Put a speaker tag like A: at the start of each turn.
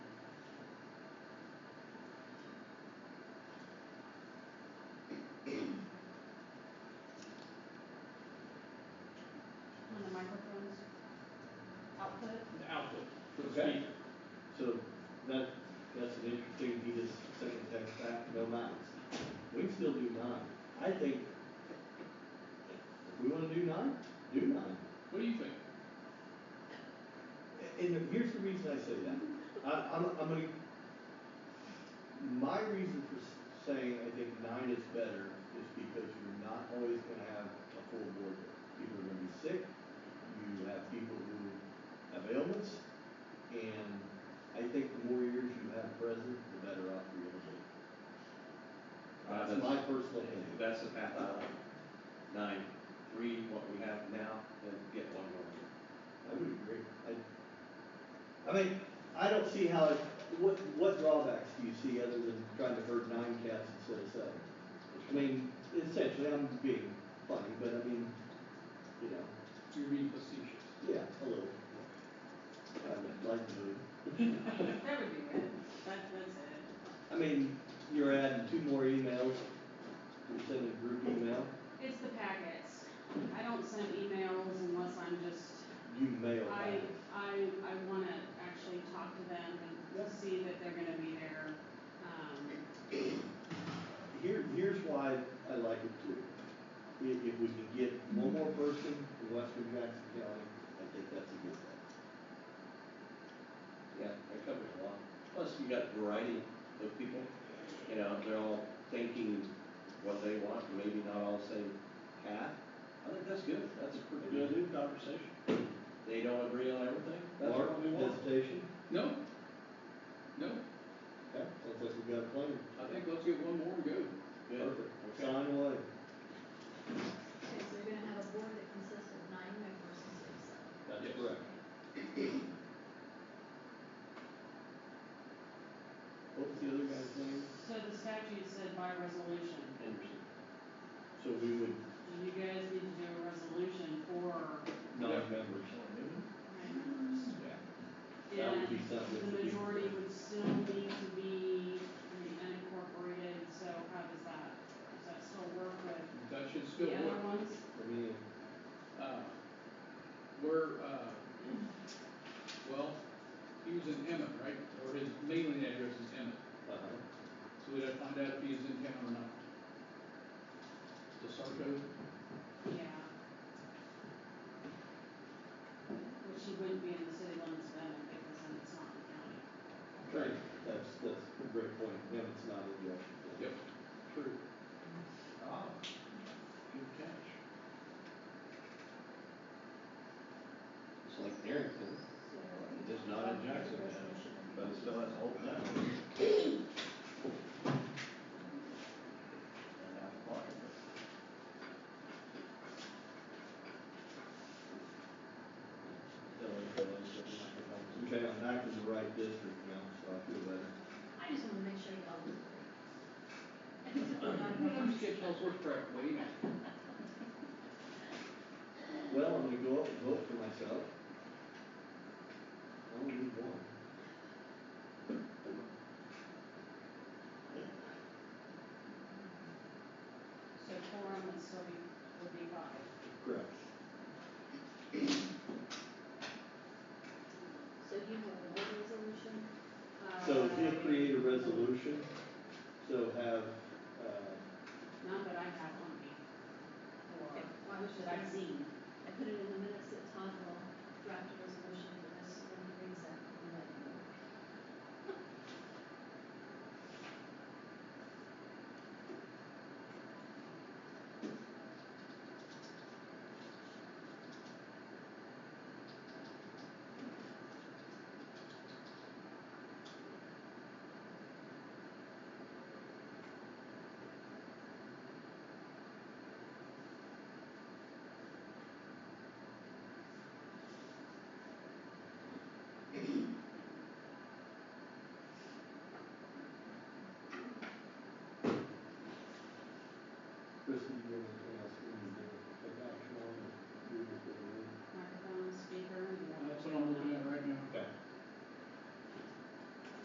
A: Okay. So that, that's an interesting, he just second text back, no nines. We can still do nine. I think if we wanna do nine, do nine.
B: What do you think?
A: And here's the reason I say that. I, I'm, I'm gonna, my reason for s- saying I think nine is better is because you're not always gonna have a full board. People are gonna be sick, you have people who have ailments, and I think the more years you have present, the better off you're gonna be.
C: Uh,
A: That's my personal
C: If
A: opinion.
C: that's the path I like, nine, three, what we have now, then get one more. year.
A: I would agree. I, I mean, I don't see how, it- what, what drawbacks do you see other than trying to herd nine cats instead of seven? I mean, essentially, I'm being funny, but I mean, you know,
B: You're being facetious.
A: yeah, a little. I'd like to move.
D: That would be good, that, that's it.
A: I mean, you're adding two more emails, you're sending a group email,
D: It's the packets. I don't send emails unless I'm just,
A: you mail
D: I,
A: that.
D: I, I wanna actually talk to them and
A: Yep.
D: see that they're gonna be there. Um,
A: Here, here's why I like it too. If, if we can get one more person in western Jackson County, I think that's a good thing.
C: Yeah, that covers a lot. Plus, you got variety of people, you know, they're all thinking what they want, maybe not all the same path. I think that's good, that's a pretty good conversation. They don't agree on everything, that's
A: Mark,
C: what we want.
A: hesitation?
B: No? No,
A: Okay, sounds like we've got a plan.
B: I think let's get one more and go.
C: Good.
A: Perfect. Sign away.
E: Okay, so you're gonna have a board that consists of nine members instead of seven.
A: That's
B: Yes.
A: correct. What was the other guy's name?
D: so the statute said by resolution.
C: Interesting.
A: So we would,
D: Do you guys need to do a resolution for
A: nine members.
D: nine members?
A: That would
D: And
A: be something
D: the
A: to do.
D: majority would still need to be the unincorporated, so how does that, does that still work with
B: That should still
D: the
B: work.
D: other ones?
A: I mean,
B: Uh, We're, uh, well, he was in Emmett, right? Or his mailing address is Emmett,
A: uh,
B: so we'd have to find out if he's in town or not. The Sarko,
D: Yeah. But she wouldn't be in the city limits then, because then it's not in the county.
B: Right.
A: that's, that's a great point. Yeah, it's not in the action plan.
B: yep, true. Ah, good catch.
C: It's like Darrington, it is not in Jackson County, but it still has a whole town. And half a block of it. Still in the village, but it's not the village.
A: Okay, I'm back in the right district now, so I feel better.
E: I just wanna make sure y'all look great.
B: I'm just getting all sorts of crap, wait.
A: Well, I'm gonna go up and vote for myself. I only need one.
D: So quorum would still be, would be five.
A: Correct.
E: So you have a board resolution,
A: So if you
D: Uh,
A: create a resolution, so have, uh,
D: Not that I have on me, or
E: Okay, why would you
D: that I've
E: have-
D: seen.
E: I put it in the minutes that Todd will draft a resolution, but this is when he reads that, and let you know.
A: Kristen, you want to?